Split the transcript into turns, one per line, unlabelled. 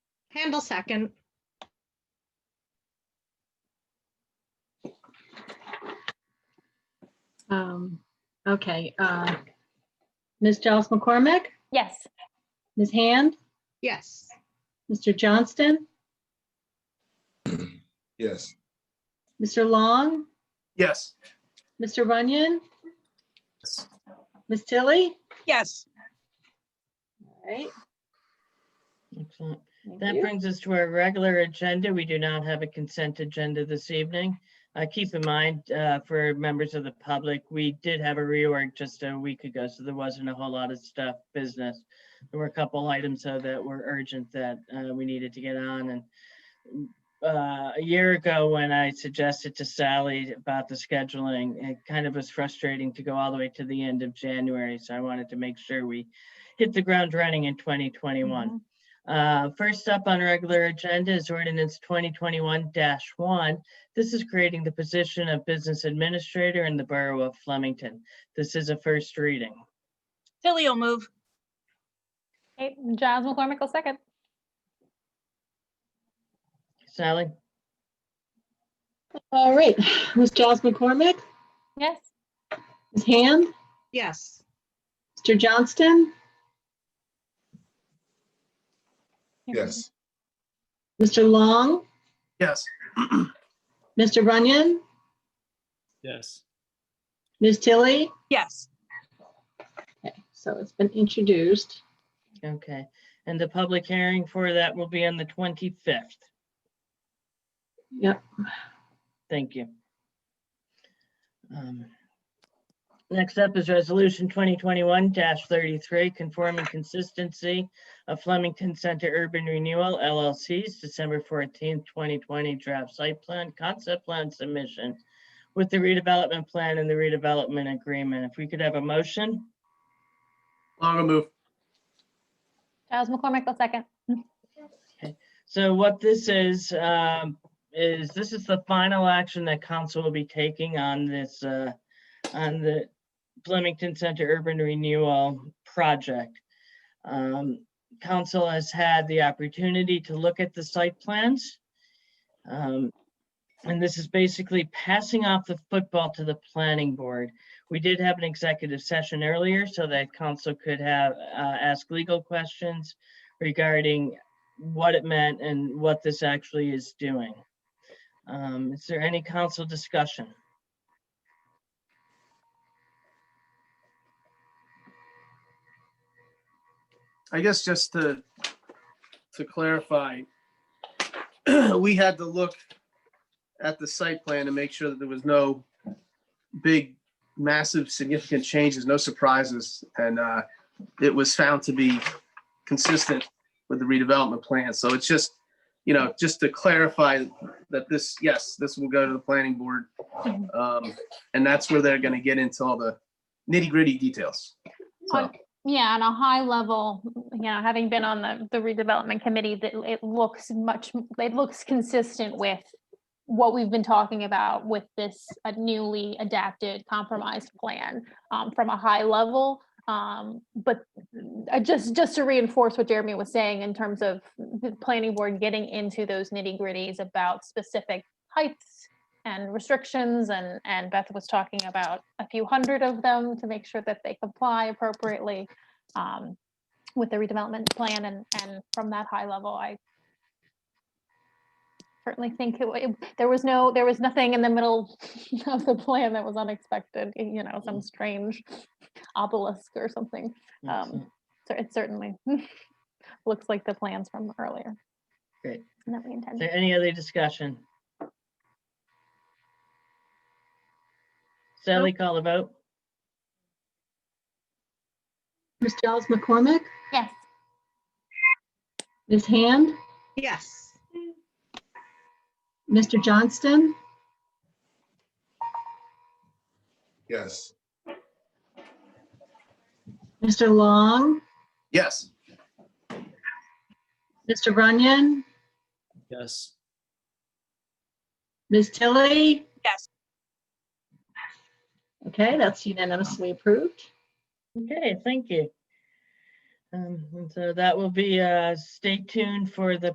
Handle second.
Um, okay, uh, Ms. Giles McCormick,
Yes.
Ms. Hand,
Yes.
Mr. Johnston,
Yes.
Mr. Long,
Yes.
Mr. Runyon, Ms. Tilly.
Yes,
All right.
Excellent.
thank
That
you.
brings us to our regular agenda. We do not have a consent agenda this evening. Uh, Keep in mind, uh, for members of the public, we did have a reorg just a week ago, so there wasn't a whole lot of stuff, business. There were a couple items, though, that were urgent that uh, we needed to get on. And uh, a year ago, when I suggested to Sally about the scheduling, it kind of was frustrating to go all the way to the end of January. So I wanted to make sure we hit the ground running in 2021. Uh, First up on regular agenda is ordinance 2021-1. This is creating the position of business administrator in the Borough of Flemington. This is a first reading.
Tilly will move.
Okay, Giles McCormick will second.
Sally?
All right, Ms. Giles McCormick,
Yes.
Ms. Hand,
Yes.
Mr. Johnston,
Yes.
Mr. Long,
Yes.
Mr. Runyon,
Yes.
Ms. Tilly.
Yes,
Okay, So it's been introduced.
Okay. And the public hearing for that will be on the 25th.
Yep.
Thank you. Um, Next up is Resolution 2021-33, conforming consistency of Flemington Center Urban Renewal LLC's December 14th, 2020 draft site plan, concept plan submission with the redevelopment plan and the redevelopment agreement. If we could have a motion?
Long will move.
Giles McCormick will second.
So what this is, um, is this is the final action that council will be taking on this, uh, on the Flemington Center Urban Renewal Project. Um, council has had the opportunity to look at the site plans. Um, and this is basically passing off the football to the planning board. We did have an executive session earlier so that council could have, uh, ask legal questions regarding what it meant and what this actually is doing. Um, is there any council discussion?
I guess just to, to clarify, we had to look at the site plan to make sure that there was no big, massive, significant changes, no surprises. And uh, it was found to be consistent with the redevelopment plan. So it's just, you know, just to clarify that this, yes, this will go to the planning board. Um, And that's where they're going to get into all the nitty gritty details. So.
On- Yeah, on a high level, you know, having been on the, the redevelopment committee, that it looks much, it looks consistent with what we've been talking about with this uh, newly adapted compromised plan um, from a high level. Um, But uh, just, just to reinforce what Jeremy was saying in terms of the planning board getting into those nitty gritties about specific heights and restrictions and, and Beth was talking about a few hundred of them to make sure that they comply appropriately um, with the redevelopment plan and, and from that high level, I certainly think it, wa- it, there was no, there was nothing in the middle of the plan that was unexpected, y- you know, some strange obelisk or something. Um, So it certainly looks like the plans from earlier.
Great.
And That we
Is
intended.
there any other discussion? Sally, call the vote?
Ms. Giles McCormick,
Yes.
Ms. Hand,
Yes.
Mr. Johnston,
Yes.
Mr. Long,
Yes.
Mr. Runyon,
Yes.
Ms. Tilly?
Yes.
Okay, that's unanimously approved.
Okay, thank you. Um, and so that will be, uh, stay tuned for the